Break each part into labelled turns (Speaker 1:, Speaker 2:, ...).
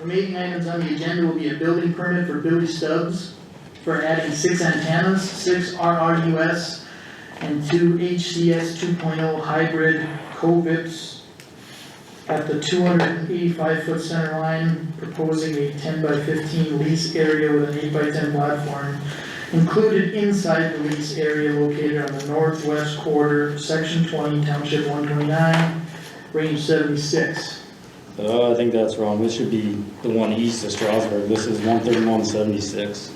Speaker 1: Remaining items on the agenda will be a building permit for Billy Stubbs for adding six antennas, six RRUS and two HCS two oh hybrid COVIDs at the two hundred and eighty-five foot center line, proposing a ten by fifteen lease area with an eight by ten platform included inside the lease area located on the northwest quarter, section twenty, township one twenty-nine, range seventy-six.
Speaker 2: Uh, I think that's wrong, this should be the one east of Strasburg, this is one thirty-one seventy-six.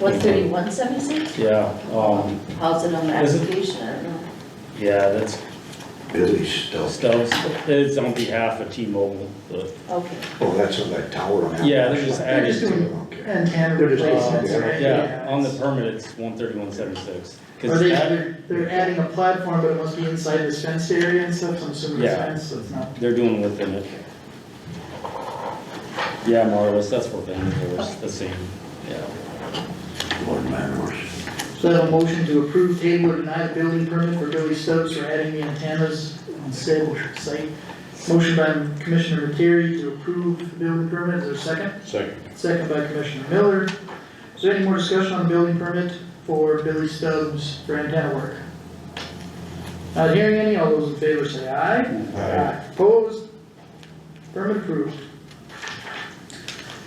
Speaker 3: One thirty-one seventy-six?
Speaker 2: Yeah, um,
Speaker 3: How's it on the
Speaker 2: Is it-
Speaker 3: application? I don't know.
Speaker 2: yeah, that's
Speaker 4: Billy Stubbs.
Speaker 2: Stubbs, it's on behalf of T-Mobile, but,
Speaker 3: Okay.
Speaker 4: Oh, that's on that tower on that.
Speaker 2: yeah, they're just
Speaker 1: They're just
Speaker 2: adding, Um,
Speaker 1: doing
Speaker 4: Okay.
Speaker 1: antenna
Speaker 4: They're just-
Speaker 1: replacements,
Speaker 4: yeah.
Speaker 1: right?
Speaker 2: yeah, on the permit, it's one thirty-one seventy-six.
Speaker 1: Are they, they're, they're adding a platform, but it must be inside this fenced area and stuff, so I'm assuming it's
Speaker 2: Yeah.
Speaker 1: fenced, so it's not.
Speaker 2: They're doing within it. Yeah, more or less, that's what they did, it's the same, yeah.
Speaker 4: Lord Manors.
Speaker 1: So I have a motion to approve table or deny the building permit for Billy Stokes for adding the antennas on said site. Motion by Commissioner Terry to approve the building permit, is there a second?
Speaker 4: Second.
Speaker 1: Second by Commissioner Miller. Is there any more discussion on building permit for Billy Stubbs for antenna work? Not hearing any, all those in favor say aye. Opposed? Permit approved.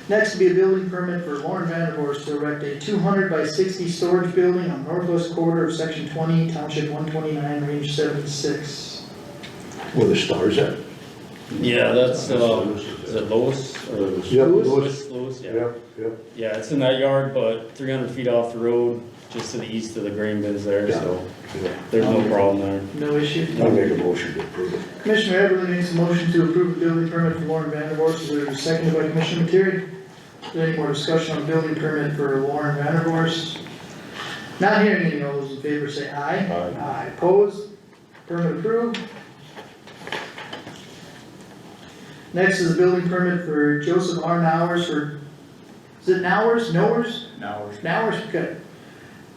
Speaker 1: Next will be a building permit for Lauren Vanderhorst to erect a two hundred by sixty storage building on northwest quarter of section twenty, township one twenty-nine, range seventy-six.
Speaker 4: Where the stars at?
Speaker 2: Yeah, that's, uh, is it Lois or?
Speaker 4: Yep, Lois.
Speaker 2: Lois, Lois, yeah.
Speaker 4: Yep, yep.
Speaker 2: Yeah, it's in that yard, but three hundred feet off the road, just to the east of the grain bins there,
Speaker 4: Yeah.
Speaker 2: so
Speaker 4: yeah.
Speaker 2: there's no problem there.
Speaker 1: No issue.
Speaker 4: I'll make a motion to approve it.
Speaker 1: Commissioner Everly makes a motion to approve a building permit for Lauren Vanderhorst, is there a second by Commissioner Terry? Is there any more discussion on building permit for Lauren Vanderhorst? Not hearing any, all those in favor say aye.
Speaker 4: Aye.
Speaker 1: Aye, opposed, permit approved. Next is a building permit for Joseph R. Nowers for, is it Nowers, Nowers? Nowers. Nowers, okay.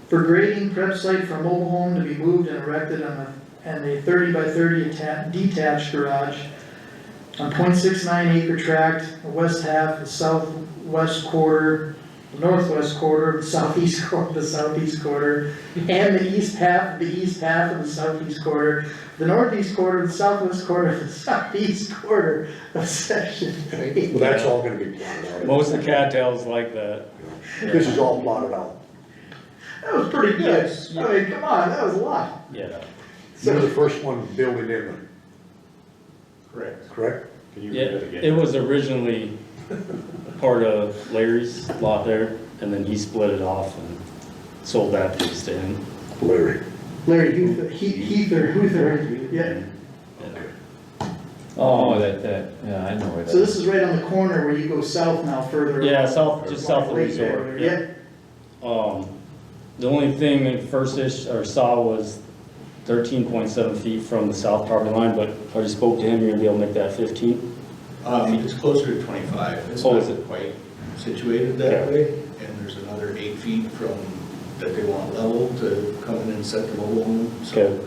Speaker 1: For grading prep site for mobile home to be moved and erected on a and a thirty by thirty atta- detached garage on 0.69 acre tract, the west half, the southwest quarter, the northwest quarter, the southeast quarter, the southeast quarter, and the east half, the east half of the southeast quarter, the northeast quarter, the southwest quarter, the southeast quarter of section three.
Speaker 4: Well, that's all gonna be plotted out.
Speaker 2: Most of the cattails like that.
Speaker 4: This is all plotted out.
Speaker 1: That was pretty good, I mean, come on, that was a lot.
Speaker 2: Yeah.
Speaker 4: You're the first one building in one,
Speaker 5: Correct.
Speaker 4: correct?
Speaker 5: Can you
Speaker 2: Yeah,
Speaker 5: read it again?
Speaker 2: it was originally part of Larry's lot there, and then he split it off and sold that piece to him.
Speaker 4: Larry.
Speaker 1: Larry Heather, He- Heather, Heather, yeah.
Speaker 6: Oh, that, that, yeah, I know where that
Speaker 1: So
Speaker 6: is.
Speaker 1: this is right on the corner where you go south now further.
Speaker 2: Yeah, south, just south of the
Speaker 1: Lake there,
Speaker 2: resort.
Speaker 1: Yeah,
Speaker 2: Um, the only thing that first ish, or saw was thirteen point seven feet from the south property line, but I just spoke to him, you're gonna be able to make that fifteen?
Speaker 5: Um, it's closer to twenty-five, it's
Speaker 2: Oh,
Speaker 5: not
Speaker 2: is it?
Speaker 5: quite situated that way, and there's another eight feet from, that they want level to come in and set the mobile home,
Speaker 2: Okay.
Speaker 5: so.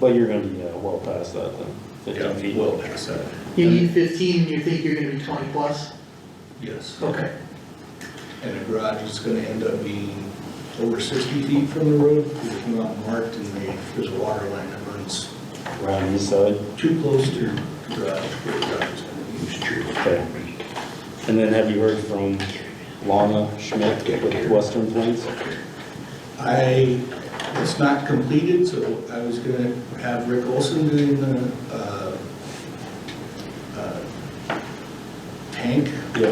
Speaker 2: But you're gonna be, uh, well past that then,
Speaker 5: Yeah,
Speaker 2: fifteen feet.
Speaker 5: well, that's that,
Speaker 1: You need E fifteen, and you think you're gonna be twenty plus?
Speaker 5: yes.
Speaker 1: Okay.
Speaker 5: And the garage is gonna end up being over sixty feet from the road, because it's not marked, and they- there's a water line that runs
Speaker 2: Around the east side,
Speaker 5: too close to the garage, where the garage is gonna be.
Speaker 2: okay. And then have you heard from Lana Schmidt with Western Plains?
Speaker 5: I, it's not completed, so I was gonna have Rick Olson doing the, uh, uh, tank,
Speaker 2: Yeah.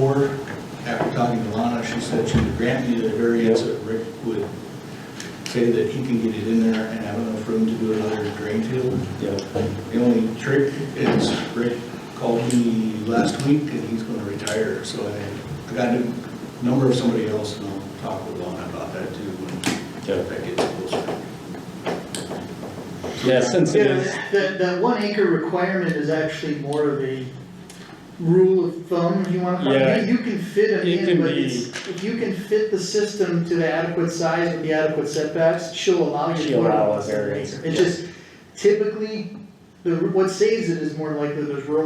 Speaker 5: or after talking to Lana, she said she would grant me the variance that Rick would say that he can get it in there and have enough room to do another drain field.
Speaker 2: Yeah,
Speaker 5: The only trick is Rick called me last week and he's gonna retire, so I, I got a number of somebody else and I'll talk with Lon about that too when
Speaker 2: Yeah.
Speaker 5: that gets closer.
Speaker 2: yeah, since it
Speaker 1: Yeah,
Speaker 2: is,
Speaker 1: that, that one acre requirement is actually more of a rule of thumb, if you wanna call it.
Speaker 2: Yeah.
Speaker 1: You can fit them
Speaker 2: It can
Speaker 1: in, but
Speaker 2: be-
Speaker 1: it's, if you can fit the system to the adequate size with the adequate setbacks, she'll allow you to.
Speaker 2: She'll
Speaker 1: put it
Speaker 2: allow
Speaker 1: on
Speaker 2: a
Speaker 1: the
Speaker 2: variance,
Speaker 1: acre. It
Speaker 2: yeah.
Speaker 1: just typically, the, what saves it is more likely there's rural